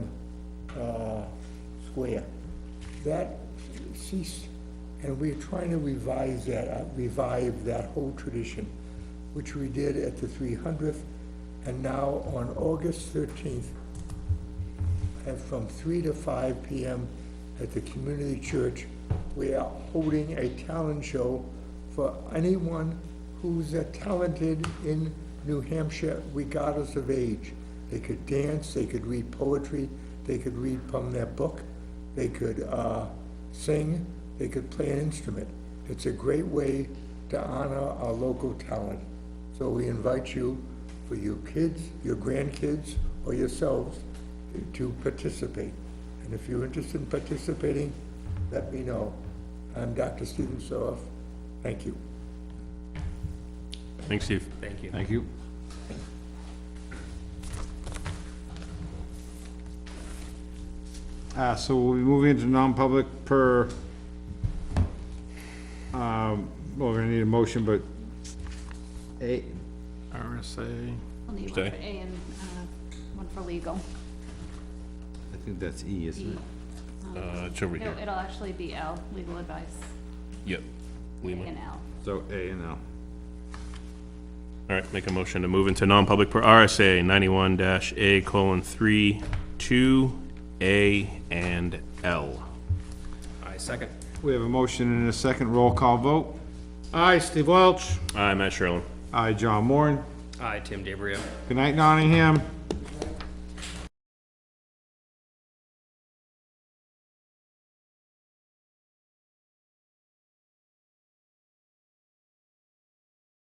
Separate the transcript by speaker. Speaker 1: uh, square. That ceased, and we are trying to revise that, uh, revive that whole tradition, which we did at the 300th, and now on August 13th, at from 3 to 5 p.m. at the community church. We are holding a talent show for anyone who's uh, talented in New Hampshire regardless of age. They could dance, they could read poetry, they could read from their book, they could uh, sing, they could play an instrument. It's a great way to honor our local talent. So we invite you, for your kids, your grandkids, or yourselves, to participate. And if you're interested in participating, let me know. I'm Dr. Stephen Soroff. Thank you.
Speaker 2: Thanks, Steve. Thank you. Thank you.
Speaker 3: Uh, so we'll be moving into non-public per, um, well, we're gonna need a motion, but A,
Speaker 2: RSA.
Speaker 4: We'll need
Speaker 2: Okay.
Speaker 4: one for A and uh, one for legal.
Speaker 3: I think that's E, isn't
Speaker 4: E.
Speaker 3: it?
Speaker 2: Uh, it's over
Speaker 4: No,
Speaker 2: here.
Speaker 4: it'll actually be L, legal advice,
Speaker 2: Yep. Lima.
Speaker 4: and L.
Speaker 3: So A and L.
Speaker 2: All right, make a motion to move into non-public per RSA ninety-one dash A colon three, two, A and L.
Speaker 5: I second.
Speaker 3: We have a motion and a second roll call vote.
Speaker 5: Aye, Steve Welch.
Speaker 2: Aye, Matt Sherlin.
Speaker 3: Aye, John Moore.
Speaker 5: Aye, Tim DeBrio.
Speaker 3: Good night, Nottingham.